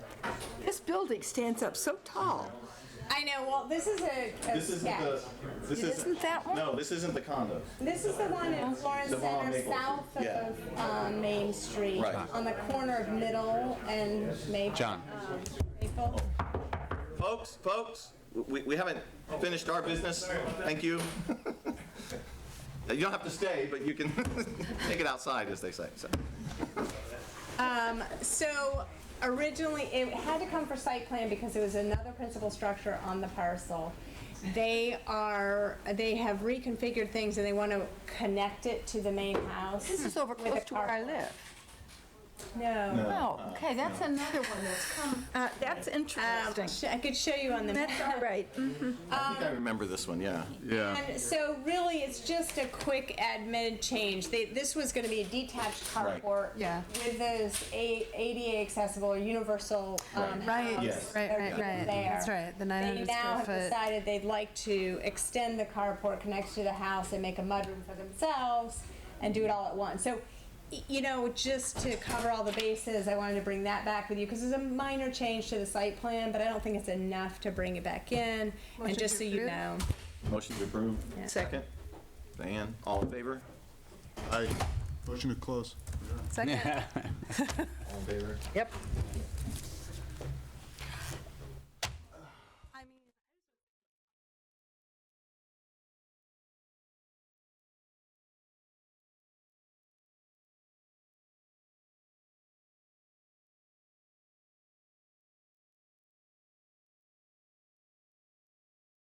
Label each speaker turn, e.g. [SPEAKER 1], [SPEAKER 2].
[SPEAKER 1] This building stands up so tall.
[SPEAKER 2] I know. Well, this is a, a
[SPEAKER 3] This isn't
[SPEAKER 2] sketch.
[SPEAKER 3] the, this isn't.
[SPEAKER 1] Isn't that one?
[SPEAKER 3] No, this isn't the condo.
[SPEAKER 2] This is the one in Florence
[SPEAKER 3] The one on
[SPEAKER 2] Center,
[SPEAKER 3] Maple
[SPEAKER 2] south
[SPEAKER 3] Street. Yeah.
[SPEAKER 2] of um, Main Street,
[SPEAKER 3] Right.
[SPEAKER 2] on the corner of Middle and Maple.
[SPEAKER 4] John.
[SPEAKER 2] um, Maple.
[SPEAKER 3] Folks, folks, we, we haven't finished our business. Thank you. You don't have to stay, but you can take it outside, as they say, so.
[SPEAKER 2] So originally, it had to come for site plan because it was another principal structure on the parcel. They are, they have reconfigured things and they want to connect it to the main house.
[SPEAKER 1] This is over
[SPEAKER 2] with a
[SPEAKER 1] close to where I
[SPEAKER 2] carport.
[SPEAKER 1] live.
[SPEAKER 2] No.
[SPEAKER 1] Oh, okay, that's another one that's come. Uh, That's interesting.
[SPEAKER 2] Sh- Um, I could show you on the
[SPEAKER 1] That's
[SPEAKER 2] map.
[SPEAKER 1] all right.
[SPEAKER 3] I think I remember this one, yeah.
[SPEAKER 4] Yeah.
[SPEAKER 2] And so really, it's just a quick admin change. They, this was gonna be a detached
[SPEAKER 3] Right.
[SPEAKER 2] carport.
[SPEAKER 5] Yeah.
[SPEAKER 2] With those A- ADA accessible or universal, um,
[SPEAKER 5] Right,
[SPEAKER 2] house.
[SPEAKER 3] Yes.
[SPEAKER 5] right,
[SPEAKER 2] They're
[SPEAKER 5] right,
[SPEAKER 2] doing
[SPEAKER 5] right.
[SPEAKER 2] there.
[SPEAKER 5] That's right, the 900
[SPEAKER 2] They now
[SPEAKER 5] square
[SPEAKER 2] have
[SPEAKER 5] foot.
[SPEAKER 2] decided they'd like to extend the carport, connect to the house, and make a mudroom for themselves, and do it all at once. So, y- you know, just to cover all the bases, I wanted to bring that back with you, because it's a minor change to the site plan, but I don't think it's enough to bring it back in, and
[SPEAKER 5] Motion
[SPEAKER 2] just
[SPEAKER 5] to
[SPEAKER 2] so you
[SPEAKER 5] approve?
[SPEAKER 2] know.
[SPEAKER 3] Motion to approve. Second. Diane, all in favor?
[SPEAKER 6] Aye. Motion to close.
[SPEAKER 5] Second.
[SPEAKER 3] All in favor.
[SPEAKER 1] Yep.